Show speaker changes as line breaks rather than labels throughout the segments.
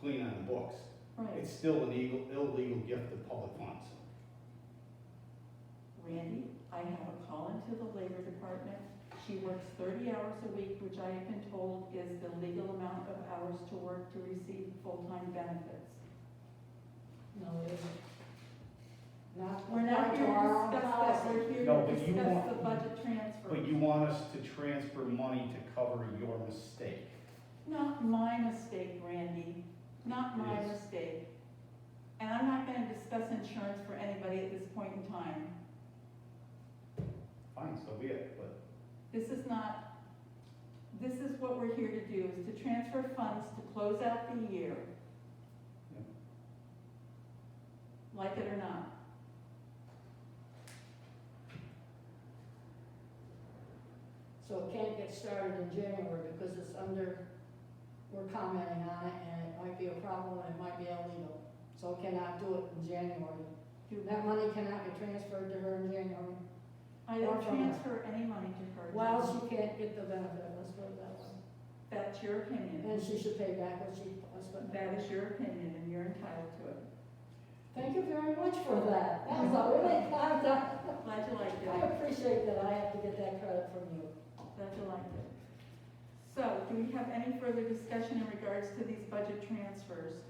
clean on the books.
Right,
It's still an illegal, illegal gift of public funds.
Randy, I have a call into the labor department. She works thirty hours a week, which I have been told is the legal amount of hours to work to receive full-time benefits.
No, it isn't. Not.
We're not here to
our
discuss that,
policy.
we're here
No,
to
but you
discuss
want-
the budget transfer.
But you want us to transfer money to cover your mistake.
Not my mistake, Randy, not my
Yes.
mistake. And I'm not gonna discuss insurance for anybody at this point in time.
Fine, so be it, but
This is not, this is what we're here to do, is to transfer funds to close out the year.
Yeah.
Like it or not.
So it can't get started in January because it's under, we're commenting on it and it might be a problem and it might be illegal. So it cannot do it in January.
Do
That money cannot be transferred to her in January
I don't transfer any money to her.
while she can't get the benefit, let's put it that way.
That's your opinion.
And she should pay back what she, let's put it that
That
way.
is your opinion and you're entitled to it.
Thank you very much for that. That was a really, kind of-
Glad you liked
I
it.
appreciate that. I have to get that credit from you.
Glad you liked it. So, do we have any further discussion in regards to these budget transfers?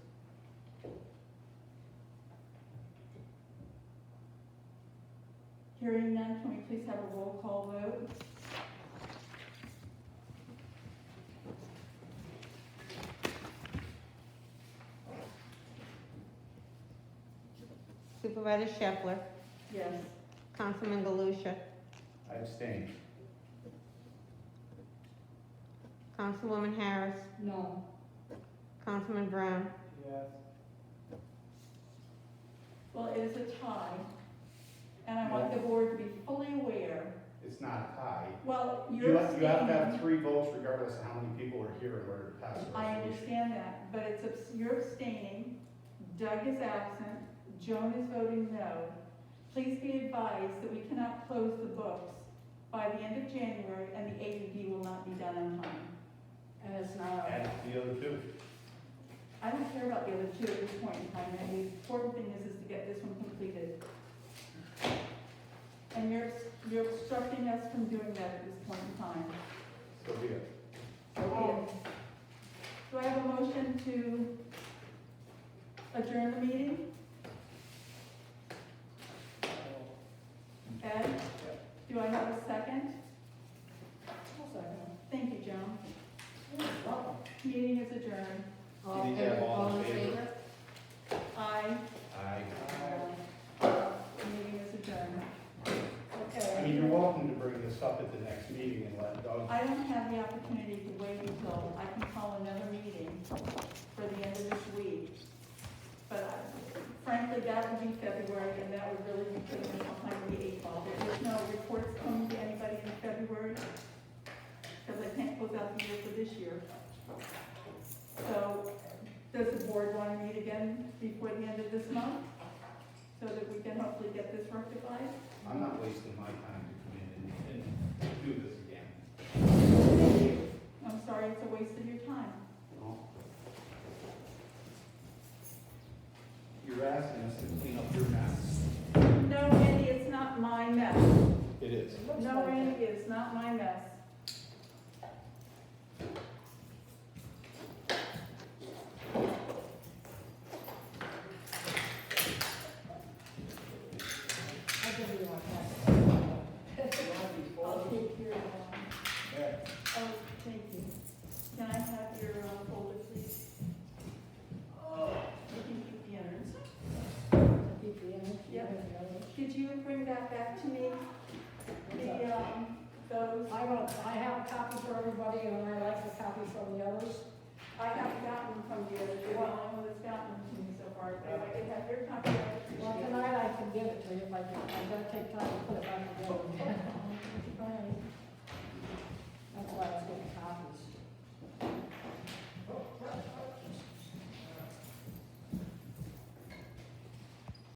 Hearing none, can we please have a roll call vote?
Supervisor Shepler,
Yes.
Councilman Galusha,
I abstain.
Councilwoman Harris,
No.
Councilman Brown,
Yes.
Well, it is a tie, and I want the board to be fully aware,
It's not a tie.
well,
You
you're
have, you have to have
abstaining.
three votes regardless of how many people are here in order to pass a
I
resolution.
understand that, but it's, abs- you're abstaining, Doug is absent, Joan is voting no. Please be advised that we cannot close the books by the end of January, and the AED will not be done on time.
And it's not,
Add the other two.
I don't care about the other two at this point in time, and the important thing is, is to get this one completed. And you're, you're obstructing us from doing that at this point in time.
So be it.
Oh.
Do I have a motion to adjourn the meeting? Ed, do I have a second? Thank you, Joan. Meeting is adjourned.
All
Did
in
you have
favor,
all in
all in
favor?
favor?
Aye.
Aye.
Meeting is adjourned.
I
Okay.
mean, you're welcome to bring this up at the next meeting and let Doug,
I don't have the opportunity to wait until I can call another meeting for the end of this week. But I- frankly, that would be February, and that would really be putting us behind the eight ball. If There's no reports coming to anybody in February, because I can't close out the year for this year. So, does the board want to meet again before the end of this month? So that we can hopefully get this rectified?
I'm not wasting my time to come in and, and do this again.
I'm sorry, it's a waste of your time.
You're asking us to clean up your mess.
No, Randy, it's not my mess.
It is.
It looks
No,
like it.
Randy, it's not my mess.
I give you my pass.
I'll take your, um,
Yeah.
oh, thank you. Can I have your um, folder, please? You can keep the innards.
Keep the energy.
Could you bring that back to me?
Okay.
The, um, those,
I will, I have a copy for everybody and I like the copy from the others.
I haven't gotten from you, you're the only one that's gotten them to me so far, but if I could have your copy, I would
Well,
appreciate it.
tonight I can give it to you if I can, I'm gonna take time to put it